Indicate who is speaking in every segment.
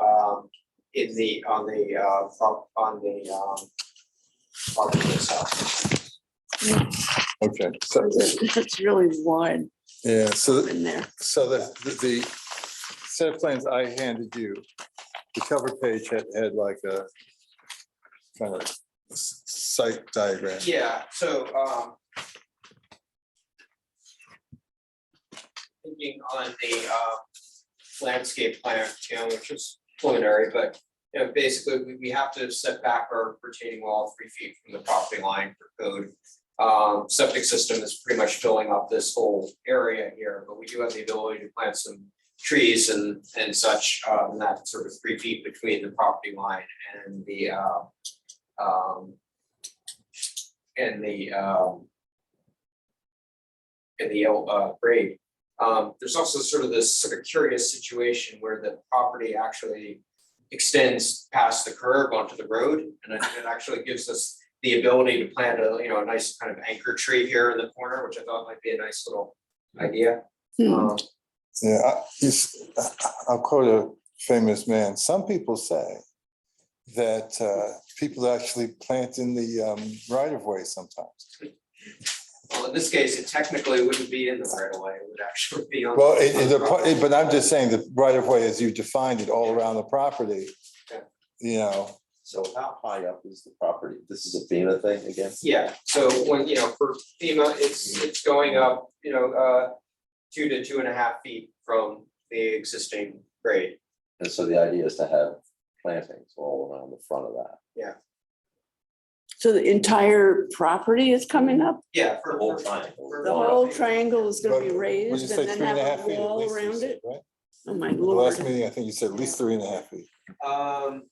Speaker 1: um, in the, on the, uh, from, on the, um, property itself.
Speaker 2: Okay, so,
Speaker 3: It's really wide
Speaker 2: yeah, so,
Speaker 3: in there.
Speaker 2: so the, the set of plans I handed you, the cover page had, had like a kind of s- site diagram.
Speaker 1: Yeah, so, um, thinking on the, uh, landscape plan, you know, which is preliminary, but, you know, basically, we, we have to set back our retaining wall three feet from the property line for code. Um, septic system is pretty much filling up this whole area here, but we do have the ability to plant some trees and, and such, uh, and that sort of three feet between the property line and the, uh, um, and the, um, and the, uh, grade. Um, there's also sort of this sort of curious situation where the property actually extends past the curb onto the road. And I think it actually gives us the ability to plant a, you know, a nice kind of anchor tree here in the corner, which I thought might be a nice little idea.
Speaker 3: Hmm.
Speaker 1: Um,
Speaker 2: Yeah, I- you s- I'll quote a famous man. Some people say that uh, people actually plant in the um, right of way sometimes.
Speaker 1: Well, in this case, it technically wouldn't be in the right of way, it would actually be on.
Speaker 2: Well, it, it- the pro- it- but I'm just saying the right of way, as you defined it, all around the property.
Speaker 1: Yeah.
Speaker 2: You know,
Speaker 4: So how high up is the property? This is a FEMA thing, I guess?
Speaker 1: Yeah, so when, you know, for FEMA, it's, it's going up, you know, uh, two to two and a half feet from the existing grade.
Speaker 4: And so the idea is to have plantings all around the front of that.
Speaker 3: So the entire property is coming up?
Speaker 1: Yeah, for.
Speaker 4: The whole
Speaker 1: for-
Speaker 4: triangle.
Speaker 1: for-
Speaker 3: The whole triangle is gonna be
Speaker 2: would you
Speaker 3: raised
Speaker 2: say
Speaker 3: and
Speaker 2: three
Speaker 3: then
Speaker 2: and a
Speaker 3: have
Speaker 2: half
Speaker 3: a
Speaker 2: feet at
Speaker 3: wall
Speaker 2: least? you
Speaker 3: around
Speaker 2: said,
Speaker 3: it?
Speaker 2: right?
Speaker 3: Oh, my
Speaker 2: The
Speaker 3: lord.
Speaker 2: last meeting, I think you said at least three and a half feet.
Speaker 1: Um,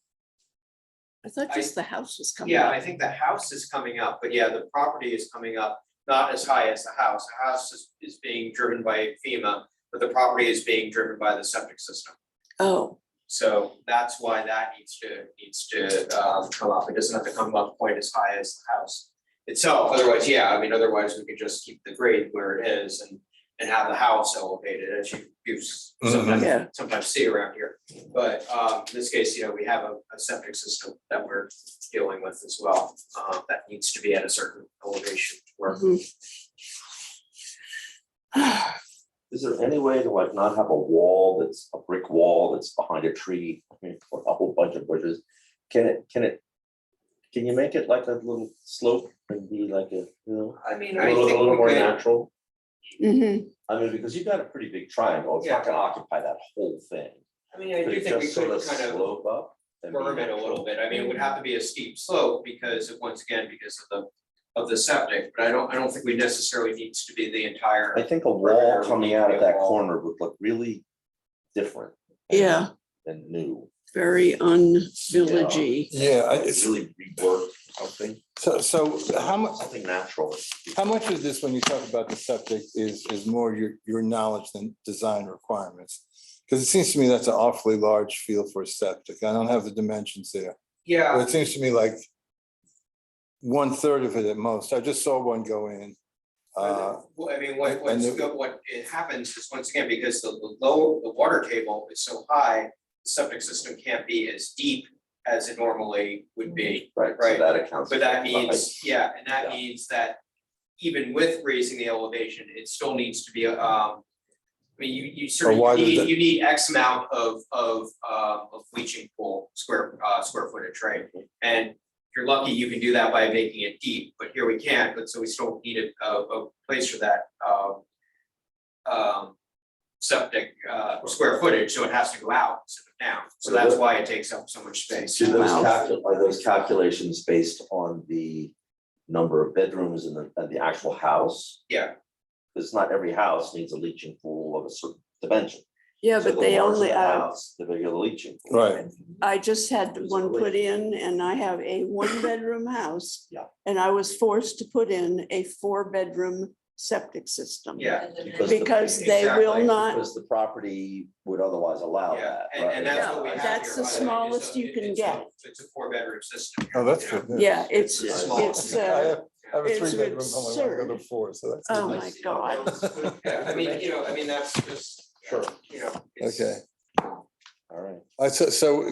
Speaker 3: I thought just the house was coming
Speaker 1: yeah,
Speaker 3: up.
Speaker 1: I think the house is coming up, but yeah, the property is coming up, not as high as the house. The house is, is being driven by FEMA, but the property is being driven by the septic system.
Speaker 3: Oh,
Speaker 1: So that's why that needs to, needs to um come up, it doesn't have to come up quite as high as the house itself, otherwise, yeah, I mean, otherwise we could just keep the grade where it is and and have the house elevated as you you
Speaker 4: Mm-hmm.
Speaker 3: Yeah.
Speaker 1: sometimes sometimes see around here. But um in this case, you know, we have a a septic system that we're dealing with as well, uh that needs to be at a certain elevation where
Speaker 3: mhm.
Speaker 4: Is there any way to like not have a wall that's a brick wall that's behind a tree, I mean, or a whole bunch of bushes? Can it, can it, can you make it like a little slope and be like a, you know,
Speaker 1: I mean,
Speaker 4: a
Speaker 1: I
Speaker 4: little, a
Speaker 1: think
Speaker 4: little
Speaker 1: we
Speaker 4: more
Speaker 1: could,
Speaker 4: natural?
Speaker 3: Mhm.
Speaker 4: I mean, because you've got a pretty big triangle, it's not gonna occupy that whole thing.
Speaker 1: I mean, I
Speaker 4: Could
Speaker 1: do
Speaker 4: it
Speaker 1: think we
Speaker 4: just sort
Speaker 1: could
Speaker 4: of
Speaker 1: kind of
Speaker 4: slope up? and be
Speaker 1: berm it a little
Speaker 4: natural?
Speaker 1: bit, I mean, it would have to be a steep slope because of, once again, because of the, of the septic, but I don't, I don't think we necessarily needs to be the entire.
Speaker 4: I think a
Speaker 1: Perimeter
Speaker 4: wall
Speaker 1: would
Speaker 4: coming out
Speaker 1: be
Speaker 4: of
Speaker 1: a
Speaker 4: that
Speaker 1: wall.
Speaker 4: corner would look really different. and-
Speaker 3: Yeah,
Speaker 4: And new,
Speaker 3: very un-villagey.
Speaker 2: Yeah, I-
Speaker 4: it's
Speaker 2: it's,
Speaker 4: really reworked something,
Speaker 2: so, so how much,
Speaker 4: something natural.
Speaker 2: how much of this, when you talk about the subject, is, is more your, your knowledge than design requirements? Because it seems to me that's an awfully large field for a septic. I don't have the dimensions there. But
Speaker 1: Yeah,
Speaker 2: it seems to me like one third of it at most. I just saw one go in. Uh,
Speaker 1: well, I mean, what,
Speaker 2: and
Speaker 1: what's,
Speaker 2: the-
Speaker 1: go- what it happens is, once again, because the, the low, the water table is so high, the septic system can't be as deep as it normally would
Speaker 2: Mm-hmm.
Speaker 1: be.
Speaker 4: Right, so
Speaker 1: Right,
Speaker 4: that accounts.
Speaker 1: But that
Speaker 4: for the height.
Speaker 1: means, yeah, and that
Speaker 4: Yeah.
Speaker 1: means that even with raising the elevation, it still needs to be, um. I mean, you, you
Speaker 2: why
Speaker 1: certainly
Speaker 2: does
Speaker 1: need,
Speaker 2: that-
Speaker 1: you need X amount of, of, uh, of bleaching pool, square, uh, square footage, right? And if you're lucky, you can do that by making it deep, but here we can't, but so we still need a, a, a place for that, um. Um, septic, uh, square footage, so it has to go out instead of down, so that's why it takes up so much space.
Speaker 4: Do those
Speaker 3: Wow.
Speaker 4: calcu- are those calculations based on the number of bedrooms in the, and the actual house?
Speaker 1: Yeah.
Speaker 4: Because not every house needs a leaching pool of a certain dimension.
Speaker 3: Yeah,
Speaker 4: So
Speaker 3: but
Speaker 4: the
Speaker 3: they
Speaker 4: larger
Speaker 3: only,
Speaker 4: the
Speaker 3: uh,
Speaker 4: house, The bigger the leaching. pool.
Speaker 2: Right.
Speaker 3: I just had
Speaker 4: There's
Speaker 3: one
Speaker 4: always-
Speaker 3: put in and I have a one-bedroom house.
Speaker 4: Yeah.
Speaker 3: And I was forced to put in a four-bedroom septic system.
Speaker 1: Yeah.
Speaker 4: Because the-
Speaker 3: Because they will
Speaker 1: Exactly,
Speaker 3: not,
Speaker 4: Because the property would otherwise allow
Speaker 1: Yeah,
Speaker 4: that.
Speaker 1: and, and
Speaker 4: right?
Speaker 1: that's what we
Speaker 3: Oh, uh, Yeah,
Speaker 1: have
Speaker 3: that's
Speaker 1: here,
Speaker 3: the
Speaker 1: by way, is
Speaker 3: smallest
Speaker 1: a-
Speaker 3: you can
Speaker 1: it's a-
Speaker 3: get.
Speaker 1: It's a four bedroom system.
Speaker 2: Oh, that's
Speaker 1: you know?
Speaker 2: good.
Speaker 3: yeah, it's,
Speaker 1: It's
Speaker 4: small.
Speaker 3: it's, uh,
Speaker 2: I have a
Speaker 3: it's
Speaker 2: three bedroom home, I want to go
Speaker 3: absurd.
Speaker 2: to four, so that's.
Speaker 3: Oh,
Speaker 2: good.
Speaker 3: my God.
Speaker 1: Yeah, I mean, you know, I mean, that's just,
Speaker 4: Sure,
Speaker 1: you know. it's-
Speaker 2: Okay.
Speaker 4: all right.
Speaker 2: I, so, so